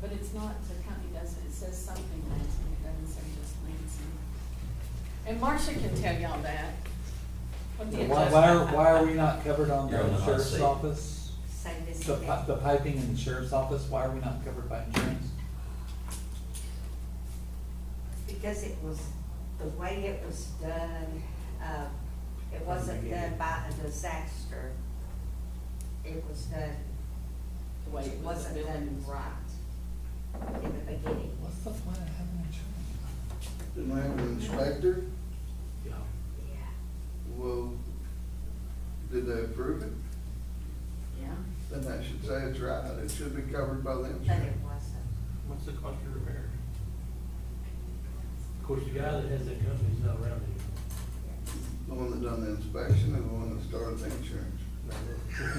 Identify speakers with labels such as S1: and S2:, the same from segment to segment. S1: but it's not, the county doesn't, it says something Lansing, it doesn't say just Lansing. And Marcia can tell y'all that. what the
S2: Why, why are,
S1: adjustment-
S2: why are we not covered on
S3: You're on the
S2: the
S3: hot
S2: sheriff's
S3: seat.
S2: office?
S4: Say this
S2: The pi-
S4: again.
S2: the piping in the sheriff's office, why are we not covered by insurance?
S4: Because it was, the way it was done, uh, it wasn't done by a disaster. It was done,
S1: The way
S4: it
S1: it was
S4: wasn't done
S1: built.
S4: right in the beginning.
S2: What's the point of having insurance?
S5: Didn't have an inspector,
S2: Yeah.
S4: Yeah.
S5: well, did they approve it?
S1: Yeah.
S5: Then that should say it's right, it should be covered by the
S4: But it
S5: insurance.
S4: wasn't.
S6: What's the cost of repair? Of course, the guy that has that company's not around anymore.
S5: The one that done the inspection and the one that started the insurance.
S6: The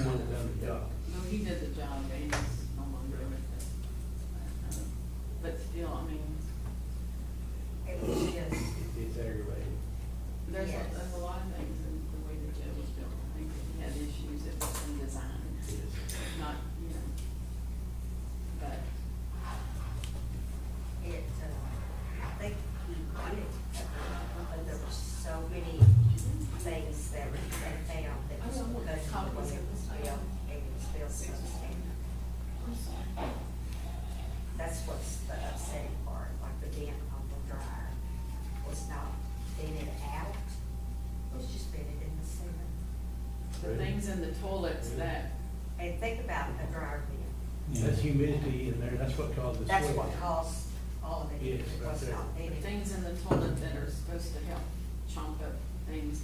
S6: one that done the job.
S1: No, he did the job, but he's no longer with us. But still, I mean,
S4: It was just,
S6: It- It's aggravating.
S1: there's, a-
S4: Yes.
S1: there's a lot of things in the way the jail was built. I think he had issues, it was in design,
S6: Yes.
S1: not, you know. But,
S4: it, uh, I think he wanted, to, but there were so many things that were, that found that was
S1: I don't want
S4: because of the way
S1: copies
S4: it
S1: of
S4: was
S1: this.
S4: built, and it was built so standard.
S1: I'm sorry.
S4: That's what's the upsetting part, like the dent on the drive was not dented out, it was just dented in the center.
S1: the things in the toilets that,
S4: And think about the dryer vent,
S6: That's humidity in there, that's what caused the sweat.
S4: that's what caused all of it, it
S6: Yes, right
S4: was
S6: there.
S4: not
S1: the
S4: dented.
S1: things in the toilet that are supposed to help chomp up things.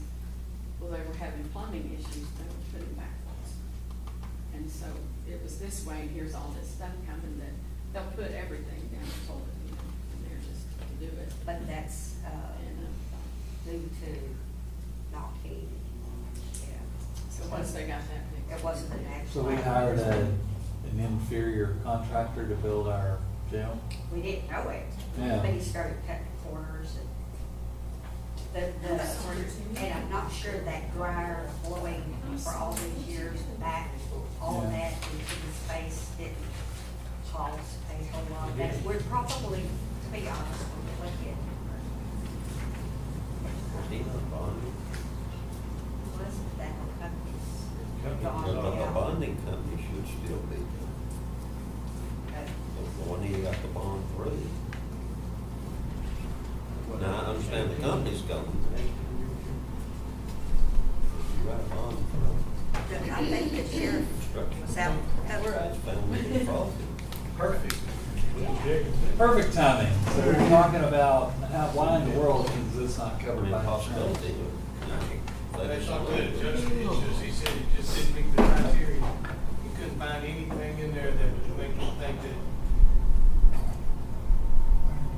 S1: Well, they were having plumbing issues, they were putting backwards. And so it was this way, and here's all this stuff coming that, they'll put everything down the toilet, you know, and they're just to do it.
S4: But that's, uh,
S1: And, uh,
S4: due to not heating, yeah.
S1: so once they got that fixed.
S4: It wasn't an actual.
S2: So we hired a, an inferior contractor to build our jail?
S4: We didn't know it.
S2: Yeah.
S4: But he started cutting corners and the,
S1: I'm sorry.
S4: the, and I'm not sure that dryer blowing for all these years back, all of
S2: Yeah.
S4: that into the space didn't cause a whole lot of that. We're probably, to be honest, we're looking.
S3: Christina Bonding,
S4: Wasn't that a company?
S6: Company's
S3: the
S6: not-
S3: the
S4: Yeah.
S3: bonding company should still be, the the one he got the bond through. Now, I understand the company's gone, but you got a bond for
S4: I think the sheriff
S3: construction.
S4: was out.
S3: Guys found it in profit.
S6: Perfect. With the jail.
S2: Perfect timing. So we're talking about how, why in the world is this not
S3: I
S2: covered
S3: mean,
S2: by insurance?
S3: possibility.
S7: That's not good adjustment, it's just, he said it just didn't meet the criteria. He couldn't find anything in there that would make him think that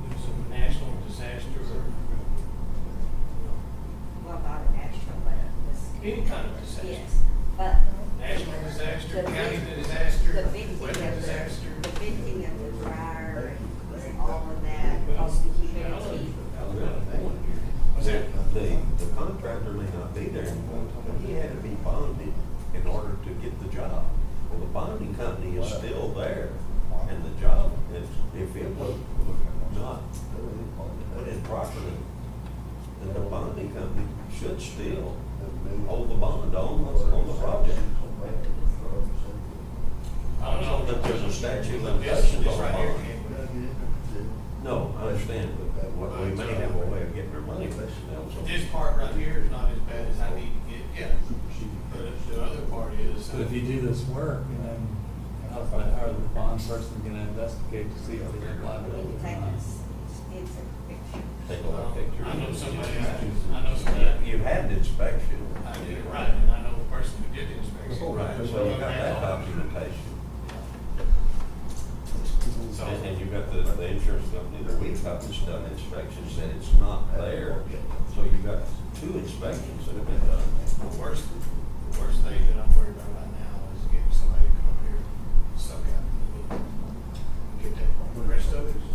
S7: it was a national disaster or,
S4: Well, not a national, but a
S7: you know, any kind of disaster.
S4: Yes, but.
S7: National disaster,
S4: The
S7: county
S4: vic-
S7: disaster,
S4: The venting of
S7: weather disaster.
S4: the, the venting of the dryer and all of that, because the humidity.
S7: Was it?
S3: The, the contractor may not be there anymore, but he had to be bonded in order to get the job. Well, the bonding company is still there, and the job, if, if it was not put in properly, then the bonding company should still hold the bond on, on the project.
S7: I don't know.
S3: But there's a statute of
S7: This,
S3: limitations
S7: this
S3: on
S7: right here
S3: bond.
S7: came with.
S3: No, I understand, but what we may have a way of getting our money, but that was.
S7: This part right here is not as bad as I need to get, yeah. But the other part is.
S2: But if you do this work and then how's the, how are the bond person gonna investigate to see if there's liability
S4: We
S2: or
S4: take
S2: not?
S4: this, it's a picture.
S3: Take a look at pictures.
S7: I know somebody, I know somebody.
S3: You had an inspection.
S7: I did it right, and I know the person who did the inspection.
S3: Right, so you got that documentation.
S7: So,
S3: And, and you got the, the insurance company, that we've got this done inspection, said it's not there. So you got two inspections that have been done.
S7: the worst, the worst thing that I'm worried about right now is getting somebody to come up here, suck out the little, get that part. The rest of it is